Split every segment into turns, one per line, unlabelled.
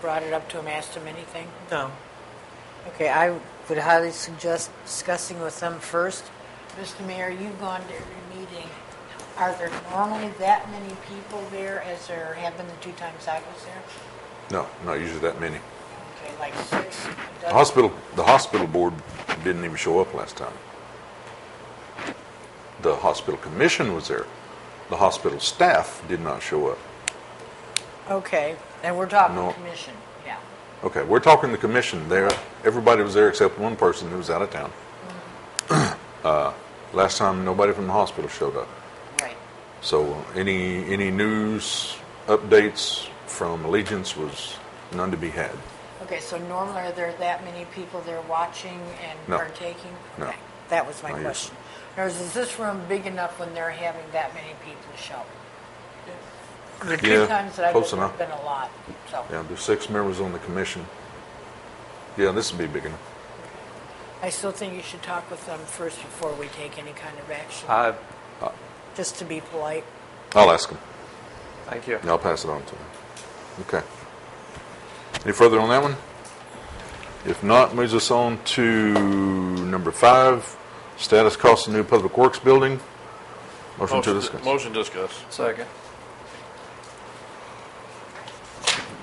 brought it up to him, asked him anything?
No.
Okay, I would highly suggest discussing with them first.
Mr. Mayor, you've gone to every meeting. Are there normally that many people there as there have been the two times I was there?
No, not usually that many.
Okay, like six? a
The
dozen?
hospital, the hospital board didn't even show up last time. The hospital commission was there. The hospital staff did not show up.
Okay, and we're talking
No.
commission.
Yeah.
Okay, we're talking the commission there. Everybody was there except one person who was out of town. Uh, last time, nobody from the hospital showed up.
Right.
So any, any news updates from Allegiance was none to be had.
Okay, so normally are there that many people there watching and
No.
partaking?
No.
Okay, That was my
Not usually.
question. In other words, is this room big enough when they're having that many people show? The
Yeah,
two times that I've
close
been,
enough.
been a lot, so.
Yeah, there's six members on the commission. Yeah, this would be big enough.
I still think you should talk with them first before we take any kind of action,
Uh,
just to be polite.
I'll ask them.
thank you.
And I'll pass it on to them. Okay. Any further on that one? If not, moves us on to number five, status cost of new public works building. Motion to discuss.
Motion to discuss.
Second.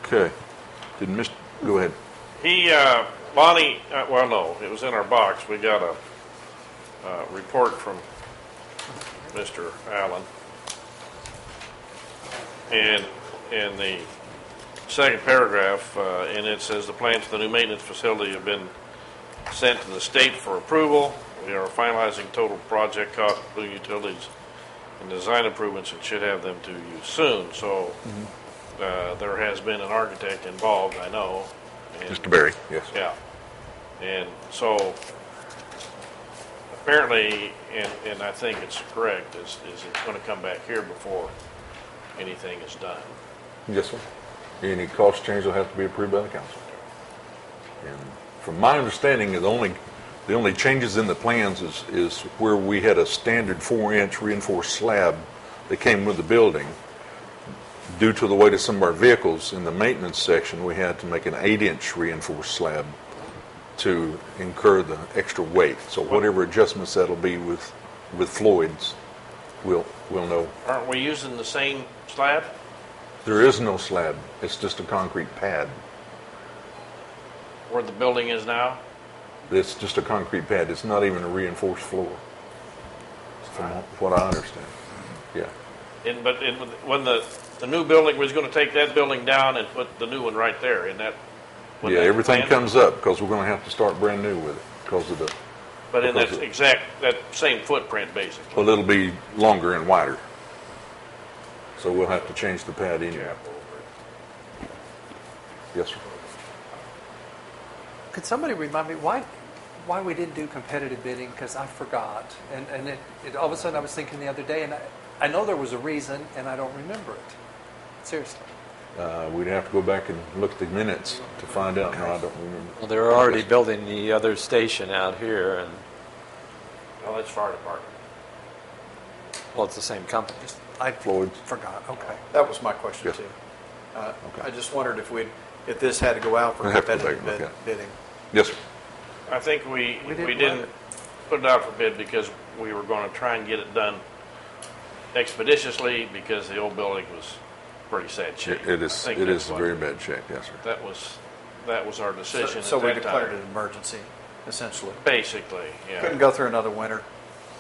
Okay. Didn't miss, go ahead.
He, uh, Bonnie, uh, well, no, it was in our box. We got a, uh, report from Mr. Allen. And in the second paragraph, uh, and it says the plans for the new maintenance facility have been sent to the state for approval. We are finalizing total project cost, including utilities and design improvements, and should have them to you soon. So, uh, there has been an architect involved, I know. and-
Barry. Yes.
yeah. And so apparently, and, and I think it's correct, is, is it's gonna come back here before anything is done.
Yes, sir. Any cost change will have to be approved by the council. And from my understanding, the only, the only changes in the plans is, is where we had a standard four-inch reinforced slab that came with the building. Due to the weight of some of our vehicles in the maintenance section, we had to make an eight-inch reinforced slab to incur the extra weight. So whatever adjustments that'll be with, with Floyd's, we'll, we'll know
Aren't we using the same slab?
there is no slab. It's just a concrete pad.
Where the building is now?
It's just a concrete pad. It's not even a reinforced floor, from what I understand. Yeah.
And, but in, when the, the new building, was gonna take that building down and put the new one right there, in that. wasn't
Yeah,
that the
everything
plan?
comes up because we're going to have to start brand new with it because of the,
But in
because
that
it-
exact, that same footprint, basically.
well, it'll be longer and wider. So we'll have to change the pad anyway. Yes, sir.
Could somebody remind me why, why we didn't do competitive bidding? Because I forgot. And, and it, it, all of a sudden I was thinking the other day, and I, I know there was a reason, and I don't remember it. Seriously.
Uh, We'd have to go back and look at the minutes to find out. No, I don't remember.
Well, they're already building the other station out here, and,
Well, that's fire department.
well, it's the same company.
Just- I
Floyd's.
forgot, okay.
That was my
Yeah.
question, too. Uh,
Okay.
I just wondered if we'd, if this had to go out for
I'd have to go back
competitive
and look
bid-
at it.
bidding.
Yes, sir.
I think we,
We didn't
we
want
didn't
it.
put it out for bid because we were gonna try and get it done expeditiously because the old building was pretty sad shape.
It- It
I
is,
think
it
that's
is
what-
very bad shape. Yes, sir.
That was, that was our
So-
decision at
So we
that
declared it
time.
an emergency, essentially.
Basically,
Couldn't
yeah,
go through another winter.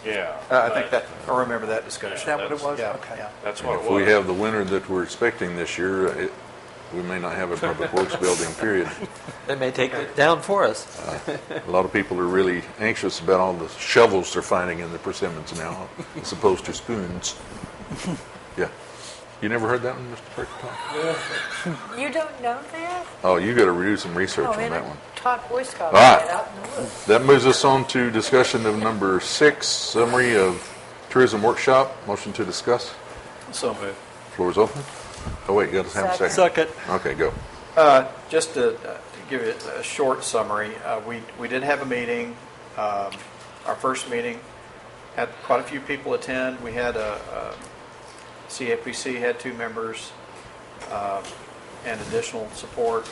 yeah.
Uh, I think that,
but
I remember that
Is
discussion.
that what it
That's-
was?
Yeah,
Okay.
yeah.
That's
And
what it
If we
was.
have the winter that we're expecting this year, it, we may not have a public works building, period. Uh,
They may take it down for us.
A lot of people are really anxious about all the shovels they're finding in the persimmons now, as opposed to spoons. Yeah. You never heard that one, Mr. Perkins?
You don't know that?
Oh, you gotta do some research
Oh,
on
man,
that
I
one. Ah!
Taught Boy Scouts
All right.
that out in the woods.
That moves us on to discussion of number six, summary of tourism workshop, motion to discuss.
So moved.
Floor is open. Oh, wait, you gotta have a second.
Second.
Okay, go.
Uh, Just to uh, to give you a short summary, uh, we we did have a meeting, um, our first meeting, had quite a few people attend. We had a, a- CAPC had two members um, and additional support.